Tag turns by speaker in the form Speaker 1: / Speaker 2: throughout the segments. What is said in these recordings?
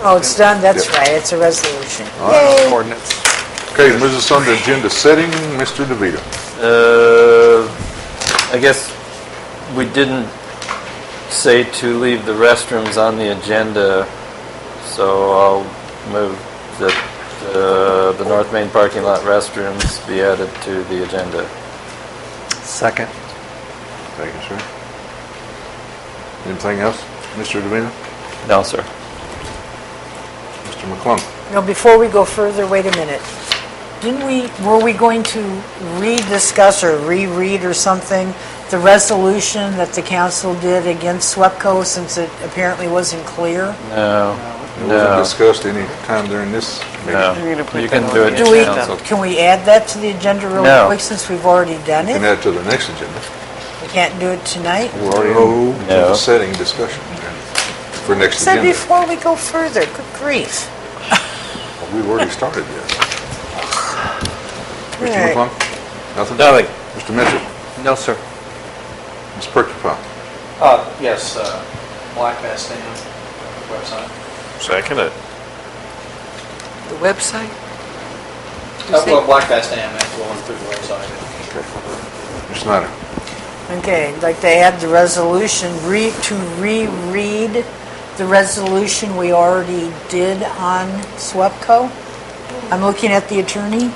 Speaker 1: Oh, it's done, that's
Speaker 2: Yep.
Speaker 1: right, it's a resolution.
Speaker 2: right.
Speaker 1: Yay!
Speaker 3: Ordinance.
Speaker 2: Okay, moves us on to agenda setting, Mr. DeVito.
Speaker 4: Uh, I guess we didn't say to leave the restrooms on the agenda, so I'll move that uh, the North Main parking lot restrooms be added to the agenda.
Speaker 3: Second.
Speaker 2: Thank you, sir. Anything else, Mr. DeVito?
Speaker 4: No, sir.
Speaker 2: Mr. McClung?
Speaker 1: Now, before we go further, wait a minute. Didn't we, were we going to rediscuss or reread or something the resolution that the council did against SWEPCO since it apparently wasn't clear?
Speaker 4: No,
Speaker 2: It wasn't
Speaker 4: no,
Speaker 2: discussed any time during this meeting.
Speaker 5: You're gonna
Speaker 4: no.
Speaker 5: put
Speaker 4: You
Speaker 5: that
Speaker 4: can
Speaker 5: on
Speaker 4: do
Speaker 5: the
Speaker 4: it,
Speaker 1: Do we,
Speaker 4: council.
Speaker 1: can we add that to the agenda really
Speaker 4: No.
Speaker 1: quick since we've already done
Speaker 2: Can
Speaker 1: it?
Speaker 2: add to the next agenda.
Speaker 1: We can't do it tonight?
Speaker 2: We're already on to
Speaker 4: No.
Speaker 2: the setting discussion for next
Speaker 1: Said
Speaker 2: agenda.
Speaker 1: before we go further, good grief.
Speaker 2: We've already started this. Mr.
Speaker 1: Right.
Speaker 2: McClung? Nothing?
Speaker 3: Nothing.
Speaker 2: Mr. Mitchell?
Speaker 3: No, sir.
Speaker 2: Ms. Perkypile?
Speaker 6: Uh, yes, uh, Black Bass Dam website.
Speaker 4: Second it.
Speaker 5: The website? You
Speaker 6: Uh,
Speaker 5: say-
Speaker 6: Well, Black Bass Dam, that's going through the website.
Speaker 2: Ms. Snyder?
Speaker 1: Okay, I'd like to add the resolution, re, to reread the resolution we already did on SWEPCO. I'm looking at the attorney.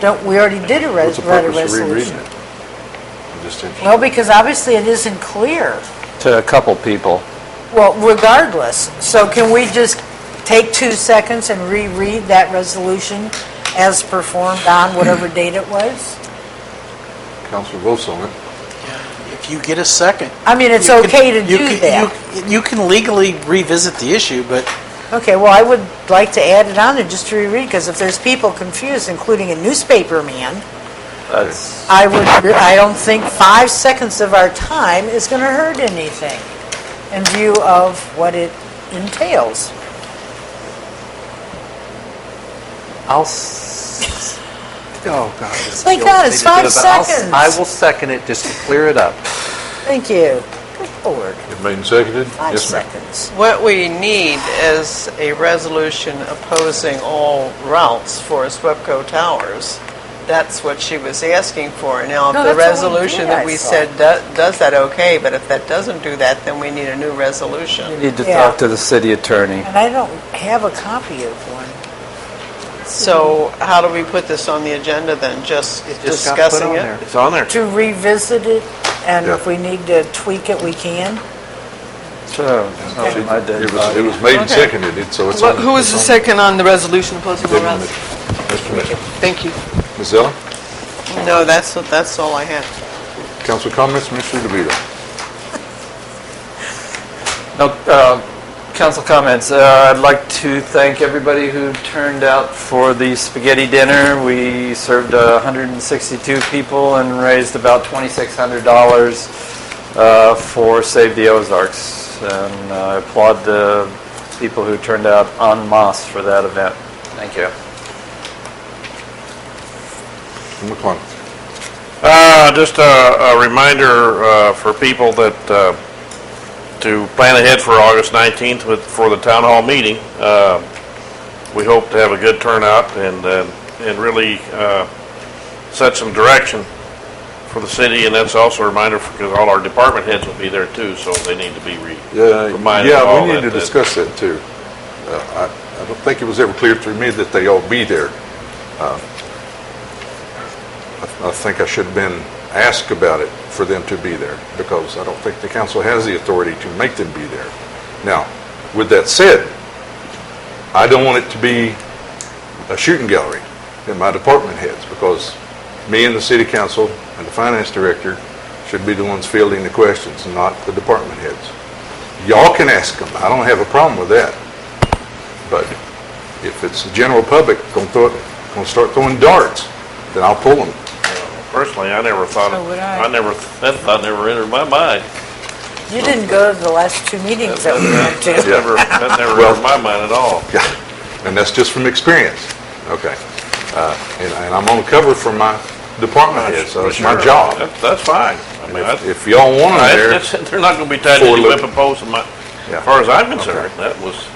Speaker 1: Don't, we already did a res,
Speaker 2: What's the
Speaker 1: read a
Speaker 2: purpose of rereading
Speaker 1: resolution.
Speaker 2: it? I'm just interested.
Speaker 1: Well, because obviously it isn't clear,
Speaker 4: To a couple people.
Speaker 1: well, regardless. So can we just take two seconds and reread that resolution as performed on whatever date it was?
Speaker 2: Council votes on it.
Speaker 6: If you get a second.
Speaker 1: I mean, it's okay to do that.
Speaker 6: You can legally revisit the issue, but
Speaker 1: Okay, well, I would like to add it on there just to reread, because if there's people confused, including a newspaper man,
Speaker 4: That's,
Speaker 1: I would, I don't think five seconds of our time is going to hurt anything in view of what it entails.
Speaker 3: I'll, s- oh, God. this
Speaker 1: My
Speaker 3: feels-
Speaker 1: God,
Speaker 3: they
Speaker 1: it's
Speaker 3: just did
Speaker 1: five
Speaker 3: it, but I'll s-
Speaker 1: seconds.
Speaker 3: I will second it just to clear it up.
Speaker 1: Thank you. Good Lord,
Speaker 2: It made and seconded?
Speaker 1: five
Speaker 2: Yes, ma'am.
Speaker 1: seconds.
Speaker 5: What we need is a resolution opposing all routes for SWEPCO Towers. That's what she was asking for. Now,
Speaker 1: No,
Speaker 5: if the
Speaker 1: that's what we did,
Speaker 5: resolution
Speaker 1: I
Speaker 5: that we
Speaker 1: saw.
Speaker 5: said do- does that, okay, but if that doesn't do that, then we need a new resolution.
Speaker 4: you need to
Speaker 1: Yeah.
Speaker 4: talk to the city attorney.
Speaker 1: And I don't have a copy of one.
Speaker 5: So how do we put this on the agenda then? Just
Speaker 3: Just got put
Speaker 5: discussing
Speaker 3: on
Speaker 5: it?
Speaker 3: there.
Speaker 7: It's on there.
Speaker 1: To revisit it, and if
Speaker 2: Yeah.
Speaker 1: we need to tweak it, we can.
Speaker 4: So, I did.
Speaker 2: It was, it was made and
Speaker 5: Okay.
Speaker 2: seconded, it- so it's on.
Speaker 5: What- Who was the
Speaker 2: it's on-
Speaker 5: second on the resolution opposing all
Speaker 2: Didn't-
Speaker 5: routes?
Speaker 2: Mr. Mitchell.
Speaker 5: Thank you.
Speaker 2: Ms. Ellen?
Speaker 5: No, that's, that's all I have.
Speaker 2: Council comments, Mr. DeVito?
Speaker 4: No, uh, council comments. Uh, I'd like to thank everybody who turned out for the spaghetti dinner. We served uh, 162 people and raised about $2,600 uh, for Save the Ozarks. And uh, I applaud the people who turned out en masse for that event. Thank you.
Speaker 2: McClung?
Speaker 7: Uh, Just a a reminder uh, for people that, uh, to plan ahead for August 19th with, for the town hall meeting. Uh, We hope to have a good turnout and, uh, and really uh, set some direction for the city. And that's also a reminder because all our department heads will be there too, so they need to be re-
Speaker 2: Yeah,
Speaker 7: reminded of
Speaker 2: yeah,
Speaker 7: all that.
Speaker 2: we need to
Speaker 7: that-
Speaker 2: discuss that too. Uh, I, I don't think it was ever clear through me that they all be there. Uh, I I think I should have been asked about it for them to be there, because I don't think the council has the authority to make them be there. Now, with that said, I don't want it to be a shooting gallery in my department heads, because me and the city council and the finance director should be the ones fielding the questions, not the department heads. Y'all can ask them, I don't have a problem with that. But if it's the general public gonna throw, gonna start throwing darts, then I'll pull them.
Speaker 7: Personally, I never thought,
Speaker 1: So would I.
Speaker 7: I never, that thought never entered my mind.
Speaker 1: You didn't go to the last two meetings that we went to.
Speaker 7: That never, that never
Speaker 2: Well-
Speaker 7: entered my mind at all.
Speaker 2: Yeah, and that's just from experience. Okay. Uh, And and I'm on cover for my department head, so it's my
Speaker 7: Sure.
Speaker 2: job.
Speaker 7: That- That's fine. I mean,
Speaker 2: If
Speaker 7: that's-
Speaker 2: if y'all want them
Speaker 7: I-
Speaker 2: there,
Speaker 7: that's- They're not going to be tied to
Speaker 2: Forward
Speaker 7: any
Speaker 2: loop.
Speaker 7: whip and post, in my-
Speaker 2: Yeah.
Speaker 7: as far as I'm concerned. That was,